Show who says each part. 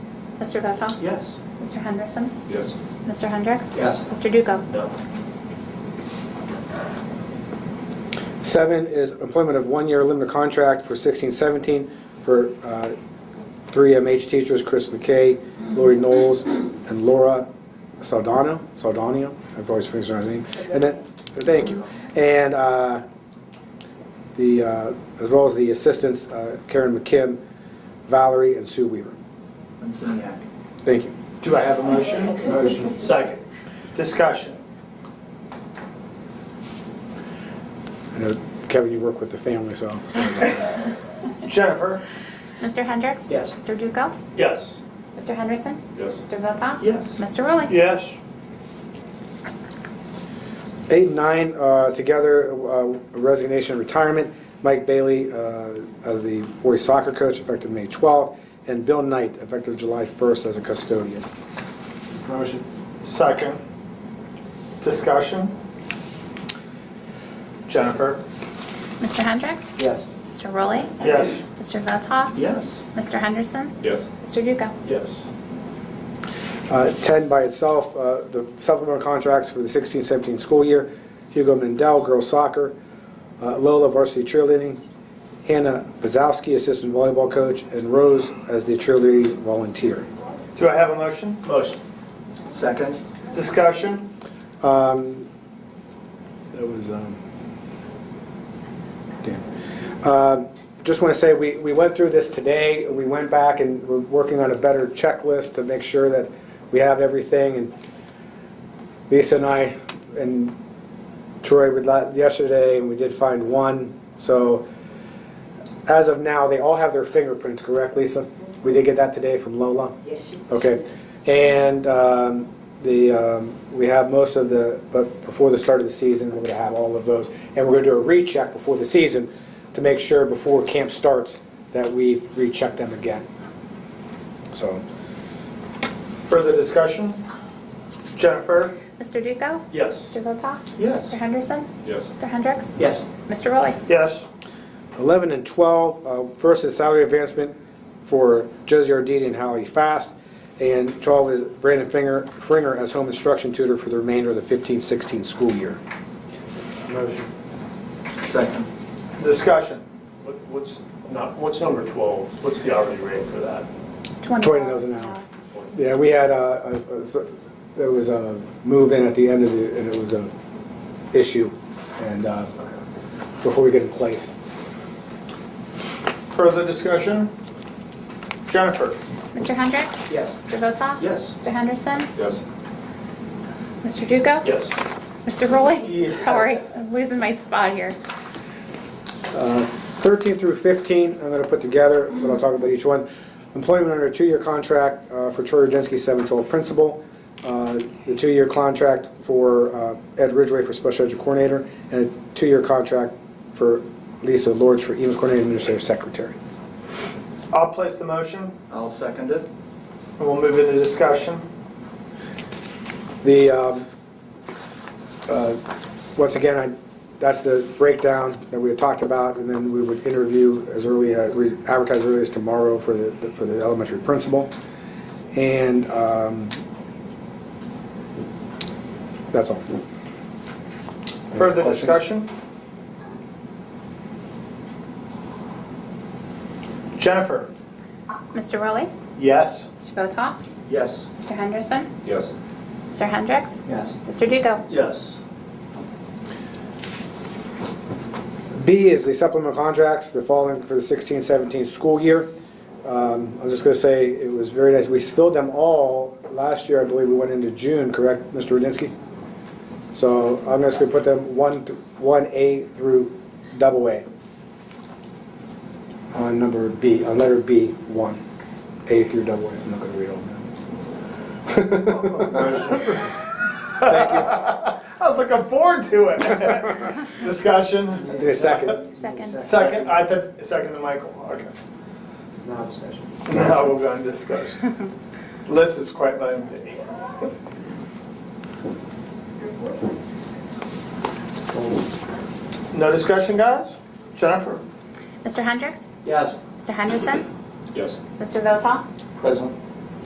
Speaker 1: Mr. Votak?
Speaker 2: Yes.
Speaker 1: Mr. Henderson?
Speaker 3: Yes.
Speaker 1: Mr. Hendricks?
Speaker 2: Yes.
Speaker 1: Mr. Duco?
Speaker 3: No.
Speaker 4: Seven is employment of one-year limited contract for 1617 for uh, three MH teachers, Chris McKay, Lori Knowles, and Laura Saldana, Saldana, I've always figured out her name. And then, thank you. And uh, the, uh, as well as the assistants uh, Karen McKim, Valerie, and Sue Weaver.
Speaker 2: And Seniak.
Speaker 4: Thank you.
Speaker 2: Do I have a motion? Motion. Second. Discussion.
Speaker 4: I know, Kevin, you work with the family, so.
Speaker 2: Jennifer?
Speaker 1: Mr. Hendricks?
Speaker 2: Yes.
Speaker 1: Mr. Duco?
Speaker 3: Yes.
Speaker 1: Mr. Henderson?
Speaker 3: Yes.
Speaker 1: Mr. Votak?
Speaker 2: Yes.
Speaker 1: Mr. Rowley?
Speaker 2: Yes.
Speaker 4: Eight and nine, uh, together, uh, resignation, retirement. Mike Bailey uh, as the boys soccer coach effective May 12th, and Bill Knight effective July 1st as a custodian.
Speaker 2: Motion. Second. Discussion. Jennifer?
Speaker 1: Mr. Hendricks?
Speaker 2: Yes.
Speaker 1: Mr. Rowley?
Speaker 2: Yes.
Speaker 1: Mr. Votak?
Speaker 2: Yes.
Speaker 1: Mr. Henderson?
Speaker 3: Yes.
Speaker 1: Mr. Duco?
Speaker 2: Yes.
Speaker 4: Uh, 10 by itself, uh, the supplemental contracts for the 16-17 school year, Hugo Mendel, girls soccer, uh, Lola varsity cheerleading, Hannah Bazowski, assistant volleyball coach, and Rose as the cheerleading volunteer.
Speaker 2: Do I have a motion? Motion.
Speaker 5: Second?
Speaker 2: Discussion.
Speaker 4: Um, That was, um, Dan. Um, Just want to say, we, we went through this today, we went back and we're working on a better checklist to make sure that we have everything, and Lisa and I and Troy would, la- yesterday, and we did find one, so as of now, they all have their fingerprints, correct, Lisa? We did get that today from Lola?
Speaker 5: Yes.
Speaker 4: Okay, and um, the, um, we have most of the, but before the start of the season, we're gonna have all of those. And we're gonna do a recheck before the season to make sure before camp starts that we recheck them again. So,
Speaker 2: Further discussion? Jennifer?
Speaker 1: Mr. Duco?
Speaker 3: Yes.
Speaker 1: Mr. Votak?
Speaker 2: Yes.
Speaker 1: Mr. Henderson?
Speaker 3: Yes.
Speaker 1: Mr. Hendricks?
Speaker 5: Yes.
Speaker 1: Mr. Rowley?
Speaker 2: Yes.
Speaker 4: 11 and 12, uh, first is salary advancement for Josie Arditi and Hallie Fast. And 12 is Brandon Finger, Fringer as home instruction tutor for the remainder of the 15-16 school year.
Speaker 2: Motion.
Speaker 5: Second?
Speaker 2: Discussion.
Speaker 3: What- What's, not, what's number 12? What's the hourly rate for that?
Speaker 4: $20 an hour. Yeah, we had a, a- a s- there was a move-in at the end of the, and it was a issue, and, uh, before we get in place.
Speaker 2: Further discussion? Jennifer?
Speaker 1: Mr. Hendricks?
Speaker 5: Yes.
Speaker 1: Mr. Votak?
Speaker 5: Yes.
Speaker 1: Mr. Henderson?
Speaker 3: Yes.
Speaker 1: Mr. Duco?
Speaker 3: Yes.
Speaker 1: Mr. Rowley?
Speaker 2: Yes.
Speaker 1: Sorry, I'm losing my spot here.
Speaker 4: Uh, 13 through 15, I'm gonna put together, but I'll talk about each one. Employment under a two-year contract uh, for Troy Rudinsky, 712 principal, uh, the two-year contract for uh, Ed Ridgway for special education coordinator, and a two-year contract for Lisa Lords for EMS coordinator and administrative secretary.
Speaker 2: I'll place the motion
Speaker 5: I'll second it.
Speaker 2: and we'll move into discussion.
Speaker 4: The, um, uh, once again, I, that's the breakdown that we had talked about, and then we would interview as early, uh, we advertise early as tomorrow for the, for the elementary principal. And um, that's all.
Speaker 2: Further
Speaker 4: Questions?
Speaker 2: discussion? Jennifer?
Speaker 1: Mr. Rowley?
Speaker 2: Yes.
Speaker 1: Mr. Votak?
Speaker 5: Yes.
Speaker 1: Mr. Henderson?
Speaker 3: Yes.
Speaker 1: Mr. Hendricks?
Speaker 5: Yes.
Speaker 1: Mr. Duco?
Speaker 2: Yes.
Speaker 4: B is the supplemental contracts, the following for the 16-17 school year. Um, I'm just gonna say, it was very nice, we filled them all, last year, I believe we went into June, correct, Mr. Rudinsky? So I'm just gonna put them one, th- one A through double A. On number B, on letter B, one, A through double A, I'm not gonna read all of them.
Speaker 2: I was looking forward to it. Discussion?
Speaker 4: Need a second,
Speaker 1: Second.
Speaker 2: Second, I took, second to Michael, okay.
Speaker 5: Now discussion.
Speaker 2: Now we'll go into discussion. List is quite lengthy. No discussion, guys? Jennifer?
Speaker 1: Mr. Hendricks?
Speaker 5: Yes.
Speaker 1: Mr. Henderson?
Speaker 3: Yes.
Speaker 1: Mr. Votak?
Speaker 5: Present.